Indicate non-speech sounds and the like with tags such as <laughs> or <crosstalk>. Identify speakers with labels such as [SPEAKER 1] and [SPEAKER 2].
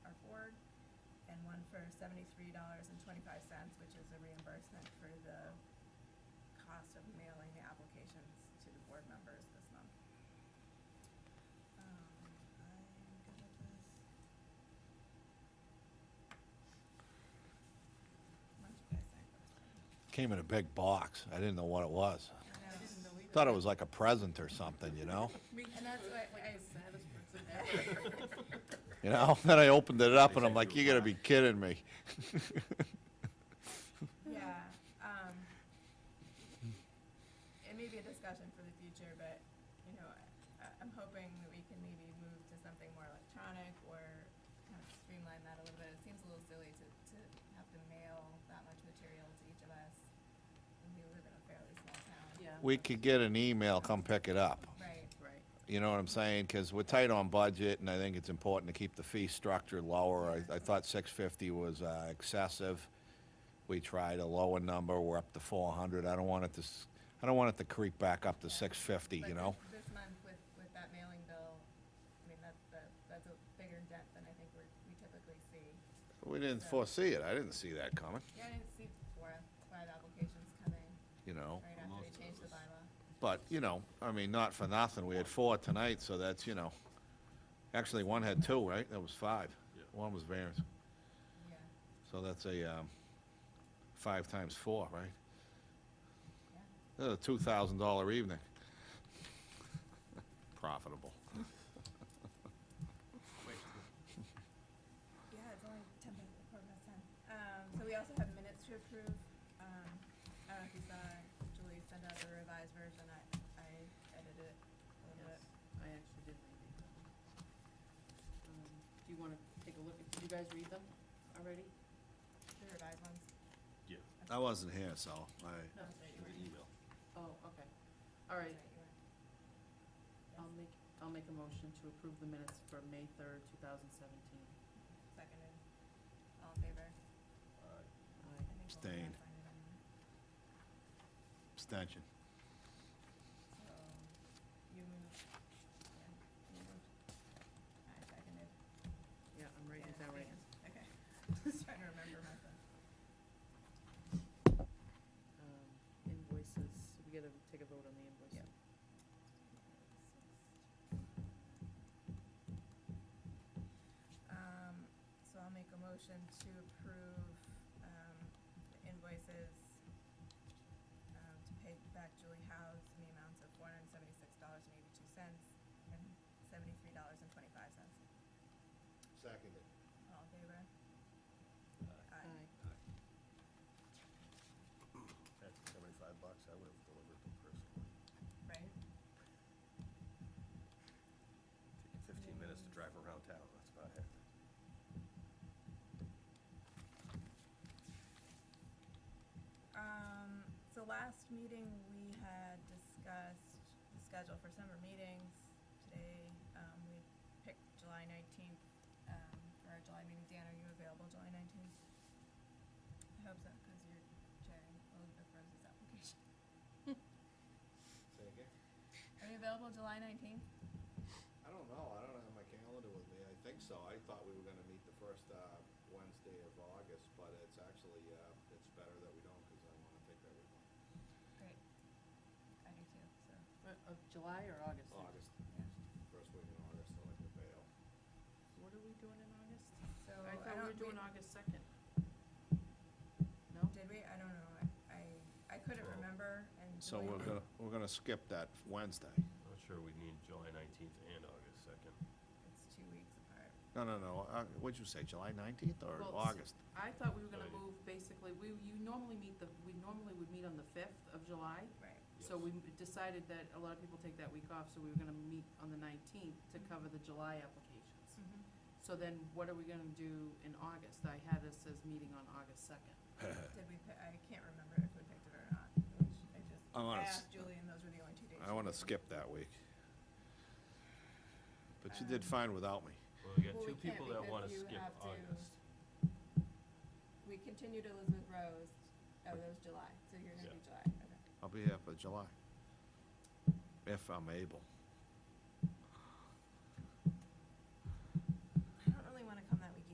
[SPEAKER 1] for seventy-three dollars and twenty-five cents, which is a reimbursement for the cost of mailing the applications to the board members this month. Um, I'm good with this. What do you guys think?
[SPEAKER 2] Came in a big box. I didn't know what it was.
[SPEAKER 1] I didn't know
[SPEAKER 2] Thought it was like a present or something, you know?
[SPEAKER 1] And that's why I.
[SPEAKER 2] <laughs> You know, then I opened it up and I'm like, you gotta be kidding me. <laughs>
[SPEAKER 1] Yeah, um, it may be a discussion for the future, but, you know, I, I'm hoping that we can maybe move to something more electronic or kind of streamline that a little bit. It seems a little silly to, to have to mail that much material to each of us, and we live in a fairly small town.
[SPEAKER 3] Yeah.
[SPEAKER 2] We could get an email, come pick it up.
[SPEAKER 1] Right. Right.
[SPEAKER 2] You know what I'm saying? Because we're tight on budget, and I think it's important to keep the fee structure lower. I, I thought six fifty was uh, excessive. We tried a lower number, we're up to four hundred. I don't want it to, s- I don't want it to creep back up to six fifty, you know?
[SPEAKER 1] This month with, with that mailing bill, I mean, that, that, that's a bigger dent than I think we're, we typically see.
[SPEAKER 2] We didn't foresee it, I didn't see that coming,
[SPEAKER 1] Yeah, I didn't see four, five applications coming
[SPEAKER 2] you know?
[SPEAKER 1] right after they changed the bylaw.
[SPEAKER 2] But, you know, I mean, not for nothing, we had four tonight, so that's, you know, actually, one had two, right? That was five.
[SPEAKER 4] Yeah.
[SPEAKER 2] One was variance.
[SPEAKER 1] Yeah,
[SPEAKER 2] So that's a, um, five times four, right?
[SPEAKER 1] yeah.
[SPEAKER 2] That's a two thousand dollar evening. Profitable.
[SPEAKER 4] Wait,
[SPEAKER 1] Yeah, it's only ten minutes before past time. Um, so we also have minutes to approve. Um, I don't know if you saw Julie sent out the revised version. I, I edited it a little bit.
[SPEAKER 3] Yes, I actually did read these. Um, Do you want to take a look, at? did you guys read them already?
[SPEAKER 1] The revised ones.
[SPEAKER 4] yeah.
[SPEAKER 2] I wasn't here, so I,
[SPEAKER 3] No.
[SPEAKER 1] That's right, you were.
[SPEAKER 4] It was an email.
[SPEAKER 3] Oh, okay. All right,
[SPEAKER 1] That's you were.
[SPEAKER 3] I'll make, I'll make a motion to approve the minutes for May third, two thousand seventeen.
[SPEAKER 1] Seconded. All in favor? I think we'll
[SPEAKER 2] Abstained.
[SPEAKER 1] sign it anyway.
[SPEAKER 2] abstention.
[SPEAKER 1] So, you moved. Yeah, you moved. I seconded.
[SPEAKER 3] Yeah, I'm writing it down right now.
[SPEAKER 1] Okay, <laughs> just trying to remember myself.
[SPEAKER 3] Um, Invoices, we gotta take a vote on the invoices.
[SPEAKER 1] Um, so I'll make a motion to approve, um, the invoices, um, to pay back Julie House in the amounts of four hundred and seventy-six dollars and eighty-two cents and seventy-three dollars and twenty-five cents.
[SPEAKER 2] Seconded.
[SPEAKER 1] All in favor? Aye.
[SPEAKER 3] Aye.
[SPEAKER 4] That's seventy-five bucks, I would have delivered them personally.
[SPEAKER 1] Right?
[SPEAKER 4] Take you fifteen minutes to drive around town, that's about it.
[SPEAKER 1] Um, so last meeting, we had discussed the schedule for summer meetings. Today, um, we picked July nineteenth, um, for our July meeting. Dan, are you available July nineteenth? I hope so, cause you're chairing Elizabeth Rose's application.
[SPEAKER 2] Say again?
[SPEAKER 1] Are you available July nineteenth?
[SPEAKER 2] I don't know, I don't have my calendar with me, I think so, I thought we were gonna meet the first, uh, Wednesday of August, but it's actually, uh, it's better that we don't, cause I wanna take that week off.
[SPEAKER 1] Great. I do too, so,
[SPEAKER 3] Uh, Of July or August?
[SPEAKER 2] August,
[SPEAKER 1] yeah.
[SPEAKER 2] first week in August, I like to bail.
[SPEAKER 3] What are we doing in August?
[SPEAKER 1] So,
[SPEAKER 3] Oh, I
[SPEAKER 1] I
[SPEAKER 3] thought we
[SPEAKER 1] don't-
[SPEAKER 3] were doing
[SPEAKER 1] we-
[SPEAKER 3] August second. No?
[SPEAKER 1] Did we? I don't know. I, I, I couldn't
[SPEAKER 4] Well-
[SPEAKER 1] remember and.
[SPEAKER 2] So
[SPEAKER 3] Oh,
[SPEAKER 1] Julie-
[SPEAKER 2] we're gonna, we're gonna skip that Wednesday.
[SPEAKER 4] Not sure we need July nineteenth and August second.
[SPEAKER 1] It's two weeks apart.
[SPEAKER 2] No, no, no, uh, what'd you say, July nineteenth or
[SPEAKER 3] Well, s-
[SPEAKER 2] August?
[SPEAKER 3] I thought we were gonna
[SPEAKER 4] Right.
[SPEAKER 3] move, basically, we, you normally meet the, we normally would meet on the fifth of July.
[SPEAKER 1] Right.
[SPEAKER 3] So we m- decided that a lot of people take that week off, so we were gonna meet on the nineteenth to cover the July applications. So then what are we gonna do in August? I had us as meeting on August second.
[SPEAKER 1] Did we, pi- I can't remember if we picked it or not. I just- I just,
[SPEAKER 2] I
[SPEAKER 1] I
[SPEAKER 2] wanna s-
[SPEAKER 1] asked Julie and those were the only two days.
[SPEAKER 2] I wanna skip that week. But you did fine without me.
[SPEAKER 4] Well, we got
[SPEAKER 1] Well, we
[SPEAKER 4] two
[SPEAKER 1] can't
[SPEAKER 4] people that
[SPEAKER 1] because
[SPEAKER 4] wanna
[SPEAKER 1] you
[SPEAKER 4] skip
[SPEAKER 1] have to-
[SPEAKER 4] August.
[SPEAKER 1] We continued Elizabeth Rose, oh, that was July, so you're gonna do
[SPEAKER 4] Yeah.
[SPEAKER 1] July, okay.
[SPEAKER 2] I'll be here for July. If I'm able.